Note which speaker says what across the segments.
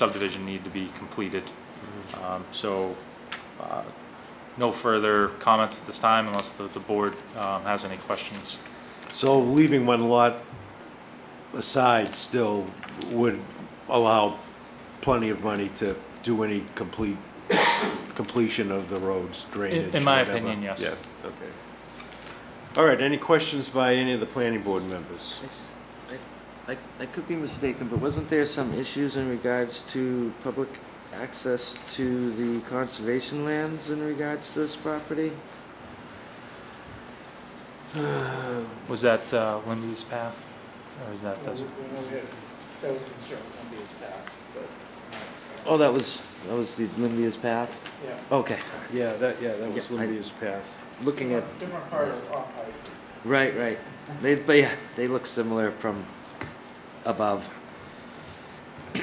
Speaker 1: subdivision needed to be completed. Um, So, uh, no further comments at this time unless the, the board um, has any questions.
Speaker 2: So leaving one lot aside still would allow plenty of money to do any complete, completion of the roads, drainage,
Speaker 1: in my
Speaker 2: whatever.
Speaker 1: opinion, yes.
Speaker 2: Yeah, okay. All right, any questions by any of the planning board members?
Speaker 3: I s- I, I- I could be mistaken, but wasn't there some issues in regards to public access to the conservation lands in regards to this property?
Speaker 1: Was that uh, Wendy's path? Or is that,
Speaker 4: Well,
Speaker 1: that's,
Speaker 4: we- we know that That was concerned, somebody is back, but,
Speaker 3: Oh, that was, that was the Limbia's Path?
Speaker 4: uh, yeah.
Speaker 3: Okay,
Speaker 2: Yeah, that, yeah, that was
Speaker 3: Yeah, I-
Speaker 2: Lydia's path.
Speaker 3: looking at,
Speaker 4: Different part of Off-High
Speaker 3: right, right. They, but yeah, they look similar from above.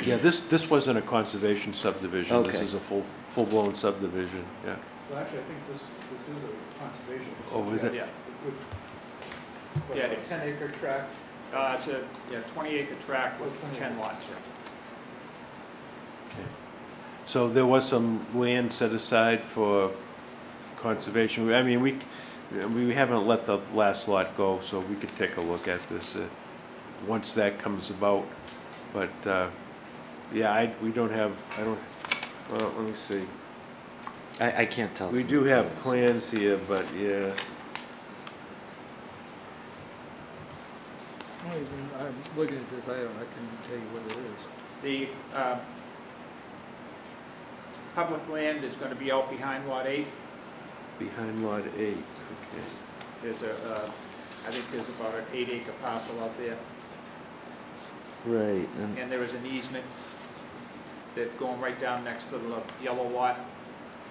Speaker 2: Yeah, this, this wasn't a conservation subdivision. This
Speaker 3: Okay.
Speaker 2: is a full, full-blown subdivision, yeah.
Speaker 4: Well, actually, I think this, this is a conservation.
Speaker 2: Oh, is it?
Speaker 4: Yeah.
Speaker 5: Yeah,
Speaker 4: Like a
Speaker 5: it is.
Speaker 4: ten acre tract, Oh,
Speaker 5: Uh, it's a, yeah, twenty acre tract with ten lots.
Speaker 2: Okay. So there was some land set aside for conservation. I mean, we, c- we haven't let the last lot go, so we could take a look at this uh, once that comes about. But, uh, yeah, I, we don't have, I don't, well, let me see.
Speaker 3: I, I can't tell.
Speaker 2: We
Speaker 3: from
Speaker 2: do
Speaker 3: the
Speaker 2: have
Speaker 3: plans.
Speaker 2: plans here, but yeah,
Speaker 6: Well, you can- I'm looking at this item, I can tell you what it is.
Speaker 5: The, uh, public land is gonna be out behind lot eight.
Speaker 2: behind lot eight, okay.
Speaker 5: There's a, uh, I think there's about an eight acre parcel out there,
Speaker 3: Right, and
Speaker 5: and there is an easement that going right down next to the yellow lot,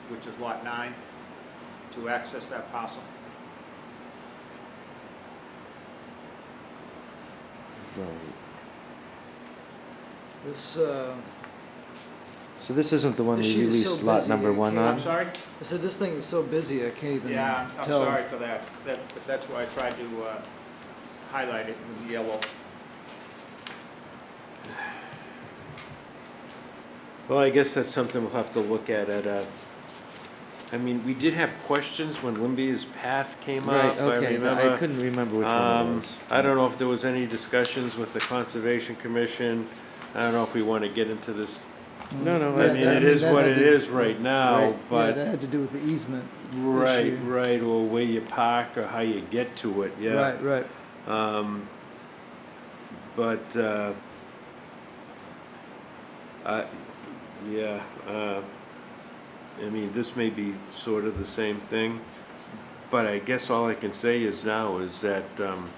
Speaker 5: which is lot nine, to access that parcel.
Speaker 3: Right.
Speaker 6: This, uh,
Speaker 3: So this isn't the one
Speaker 6: The
Speaker 3: we
Speaker 6: sheet is so
Speaker 3: released lot
Speaker 6: busy,
Speaker 3: number
Speaker 6: you
Speaker 3: one
Speaker 6: can't-
Speaker 5: I'm
Speaker 3: on?
Speaker 5: sorry?
Speaker 6: I said this thing is so busy, I can't even
Speaker 5: Yeah, I'm
Speaker 6: tell.
Speaker 5: sorry for that. That, that's why I tried to, uh, highlight it with yellow.
Speaker 2: Well, I guess that's something we'll have to look at at uh I mean, we did have questions when Limby's Path came
Speaker 3: Right,
Speaker 2: up, I
Speaker 3: okay, I
Speaker 2: remember.
Speaker 3: couldn't remember which one it
Speaker 2: Um,
Speaker 3: was.
Speaker 2: I don't know if there was any discussions with the Conservation Commission. I don't know if we want to get into this.
Speaker 3: No, no,
Speaker 2: I
Speaker 6: Yeah,
Speaker 2: mean,
Speaker 6: that-
Speaker 2: it is
Speaker 6: that
Speaker 2: what
Speaker 6: had
Speaker 2: it
Speaker 6: to-
Speaker 2: is right now,
Speaker 6: right, Yeah,
Speaker 2: but,
Speaker 6: that had to do with the easement.
Speaker 2: right,
Speaker 6: issue.
Speaker 2: right, or where you park or how you get to it, yeah.
Speaker 6: Right, right.
Speaker 2: Um, but, uh, I, yeah, uh, I mean, this may be sort of the same thing, but I guess all I can say is now is that, um,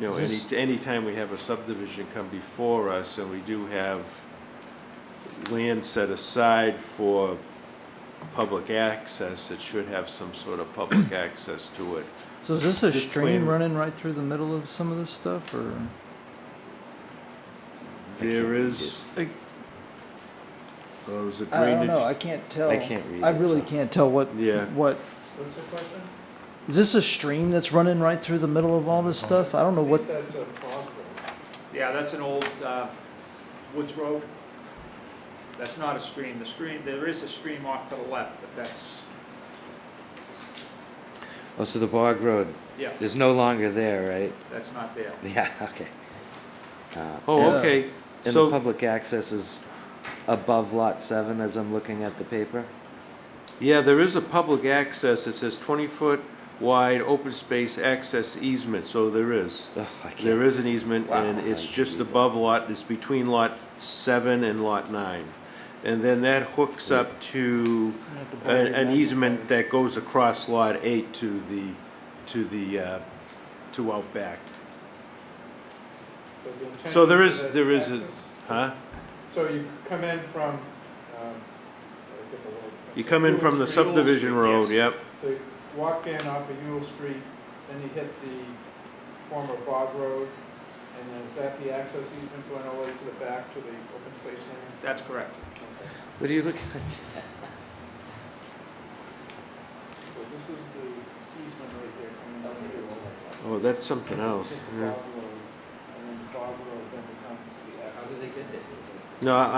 Speaker 2: you know, any,
Speaker 3: This-
Speaker 2: anytime we have a subdivision come before us and we do have land set aside for public access, it should have some sort of public access to it.
Speaker 6: So is this a
Speaker 2: This
Speaker 6: stream
Speaker 2: plan-
Speaker 6: running right through the middle of some of this stuff, or?
Speaker 3: can't
Speaker 2: There
Speaker 3: read
Speaker 2: is. a- Well, there's a
Speaker 6: I don't know,
Speaker 2: drainage.
Speaker 6: I can't tell.
Speaker 3: I can't read
Speaker 6: I
Speaker 3: it,
Speaker 6: really
Speaker 3: so-
Speaker 6: can't tell what,
Speaker 2: Yeah.
Speaker 6: what,
Speaker 4: what's the question?
Speaker 6: is this a stream that's running right through the middle of all this stuff? I don't know
Speaker 4: I
Speaker 6: what,
Speaker 4: think that's a possible.
Speaker 5: Yeah, that's an old uh, Woods Road. That's not a stream. The stream, there is a stream off to the left, but that's,
Speaker 3: Oh, so the Bog Road
Speaker 5: yeah,
Speaker 3: is no longer there, right?
Speaker 5: that's not there.
Speaker 3: Yeah, okay. Uh,
Speaker 2: Oh,
Speaker 6: Yeah.
Speaker 2: okay,
Speaker 3: And the
Speaker 2: so,
Speaker 3: public access is above lot seven as I'm looking at the paper?
Speaker 2: yeah, there is a public access, it says twenty-foot wide open space access easement, so there is.
Speaker 3: Oh, I can't.
Speaker 2: There is an easement, and
Speaker 3: Wow.
Speaker 2: it's just above lot, it's between lot seven and lot nine. And then that hooks up to a- an easement that goes across lot eight to the, to the, uh, to out back.
Speaker 4: But the intent
Speaker 2: So there is-
Speaker 4: that
Speaker 2: there is a-
Speaker 4: access-
Speaker 2: Huh?
Speaker 4: So you come in from, um, I get the word.
Speaker 2: You come in from the
Speaker 4: It's a Yule Street.
Speaker 2: subdivision road, yep.
Speaker 4: So you walk in off of Yule Street, then you hit the former Bog Road, and then is that the access easement going all the way to the back to the open space land?
Speaker 5: That's correct.
Speaker 4: Okay.
Speaker 3: What are you looking at?
Speaker 4: So this is the easement right there coming up to Yule.
Speaker 2: Oh, that's something else.
Speaker 4: Hit the Bog Road, and then Bog Road then becomes the access. How do they get it?
Speaker 2: No, I-